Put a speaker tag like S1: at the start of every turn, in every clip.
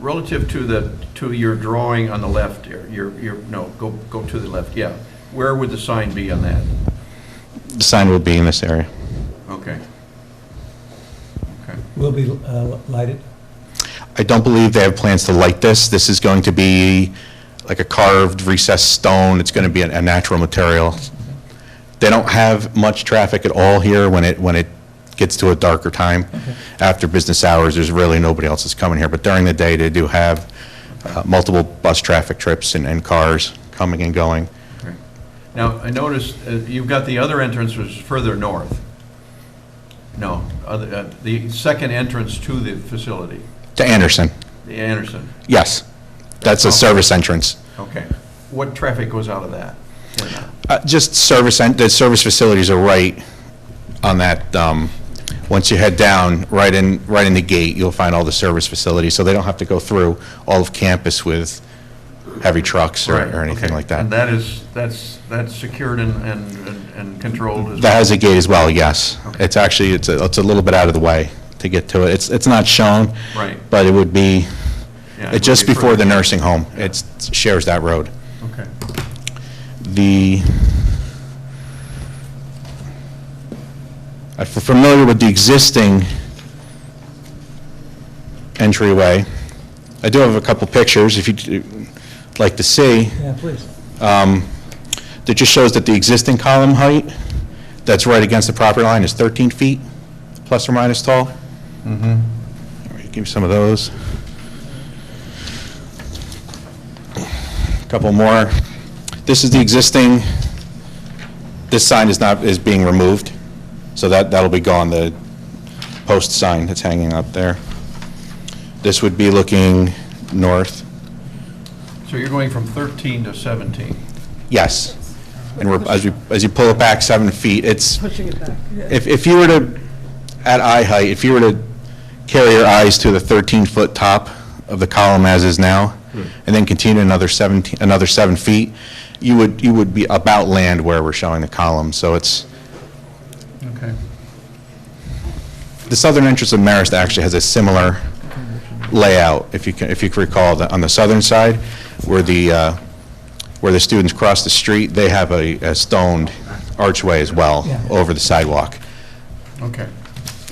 S1: relative to the, to your drawing on the left, your, your, your- no, go, go to the left, yeah. Where would the sign be on that?
S2: The sign will be in this area.
S1: Okay. Okay.
S3: Will be uh, lighted?
S2: I don't believe they have plans to light this. This is going to be like a carved recessed stone. It's going to be a a natural material. They don't have much traffic at all here when it, when it gets to a darker time. After business hours, there's really nobody else that's coming here. But during the day, they do have uh, multiple bus traffic trips and, and cars coming and going.
S1: Right. Now, I noticed, uh, you've got the other entrance which is further north. No, other, uh, the second entrance to the facility,
S2: To Anderson,
S1: the Anderson,
S2: yes. That's a service entrance.
S1: okay. What traffic goes out of that? Or not?
S2: Uh, Just service, and- the service facilities are right on that, um, once you head down, right in, right in the gate, you'll find all the service facilities, so they don't have to go through all of campus with heavy trucks or
S1: Right,
S2: or anything
S1: okay.
S2: like that.
S1: And that is, that's, that's secured and, and, and- and controlled as
S2: That
S1: well?
S2: has a gate as well, yes.
S1: Okay.
S2: It's actually, it's a, it's a little bit out of the way to get to it. It's, it's not shown.
S1: Right.
S2: But it would be,
S1: Yeah, it would
S2: it's just
S1: be
S2: before the
S1: further.
S2: nursing home. It's, shares that road.
S1: Okay,
S2: the, I'm familiar with the existing entryway. I do have a couple pictures, if you'd like to see,
S3: Yeah, please.
S2: that just shows that the existing column height that's right against the property line is 13 feet, plus or minus tall. Mm-hmm. All right, give me some of those. Couple more. This is the existing, this sign is not, is being removed, so that, that'll be gone, the post sign that's hanging up there. This would be looking north,
S1: so you're going from 13 to 17?
S2: yes. And we're, as you, as you pull it back seven feet, it's,
S4: pushing it back.
S2: If, if you were to, at eye height, if you were to carry your eyes to the 13-foot top of the column as is now, and then continue another 17, another seven feet, you would, you would be about land where we're showing the column. So it's,
S1: Okay.
S2: the southern entrance of Marist actually has a similar layout, if you can, if you can recall, that on the southern side, where the, uh, where the students cross the street, they have a a stoned archway as well
S3: Yeah.
S2: over the sidewalk.
S1: Okay.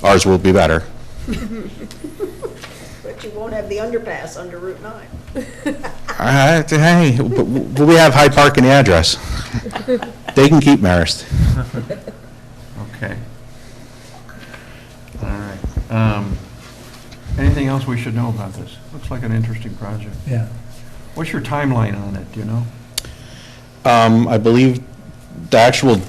S2: Ours will be better.
S4: But you won't have the underpass under Route 9.
S2: All right, hey, but we have Hyde Park in the address. They can keep Marist.
S1: Okay. All right. Um, Anything else we should know about this? Looks like an interesting project.
S3: Yeah.
S1: What's your timeline on it, do you know?
S2: Um, I believe the actual,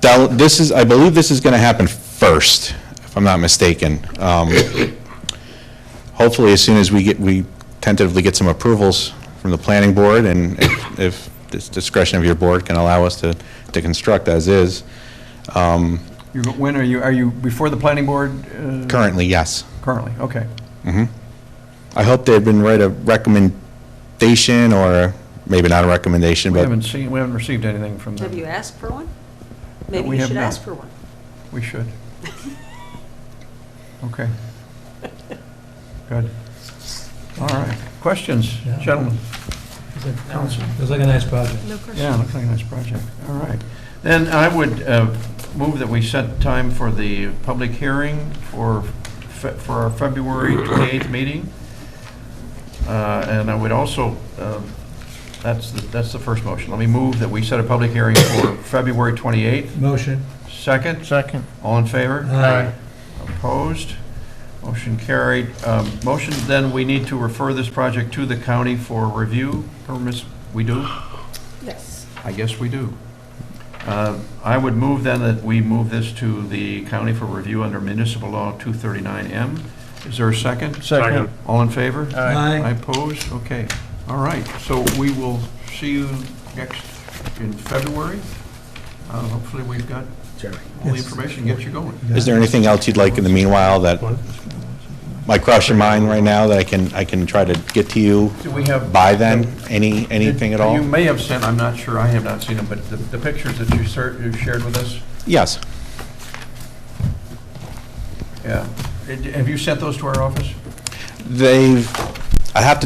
S2: del- this is, I believe this is going to happen first, if I'm not mistaken. Um, Hopefully, as soon as we get, we tentatively get some approvals from the planning board, and if- if this discretion of your board can allow us to, to construct as is. Um,
S1: You, when are you, are you before the planning board? uh,
S2: Currently, yes. Mm-hmm.
S1: Currently, okay.
S2: I hope they've been write a recommendation, or maybe not a recommendation,
S1: We haven't
S2: but
S1: seen, we haven't received anything from
S4: Have you
S1: them.
S4: asked for one? Maybe
S1: we
S4: you
S1: have
S4: should
S1: not.
S4: ask for one.
S1: We should. Okay. Good. All right. Questions,
S3: Yeah.
S1: gentlemen?
S3: Is it-
S1: Council.
S3: Looks like a nice project.
S1: Yeah, looks like a nice project. All right. Then I would uh, move that we set time for the public hearing for, Fe- for our February 28th meeting. Uh, And I would also, uh, that's, the- that's the first motion. Let me move that we set a public hearing for February 28th.
S3: Motion.
S1: Second?
S5: Second.
S1: All in favor?
S3: Aye.
S1: Opposed? Motion carried. Um, Motion, then we need to refer this project to the county for review. Permis, we do?
S4: Yes.
S1: I guess we do. Uh, I would move then that we move this to the county for review under municipal law 239M. Is there a second?
S5: Second.
S1: All in favor?
S5: Aye.
S1: I oppose? Okay. All right. So we will see you next in February. Uh, Hopefully, we've got all the
S3: Yes.
S1: information, get you going.
S2: is there anything else you'd like in the meanwhile that might cross your mind right now that I can, I can try to get to you
S1: Do we have?
S2: by then? Any, anything at
S1: You
S2: all?
S1: may have sent, I'm not sure, I have not seen them, but the- the pictures that you ser- you shared with us,
S2: Yes.
S1: yeah. Did- Have you sent those to our office?
S2: They've, I have to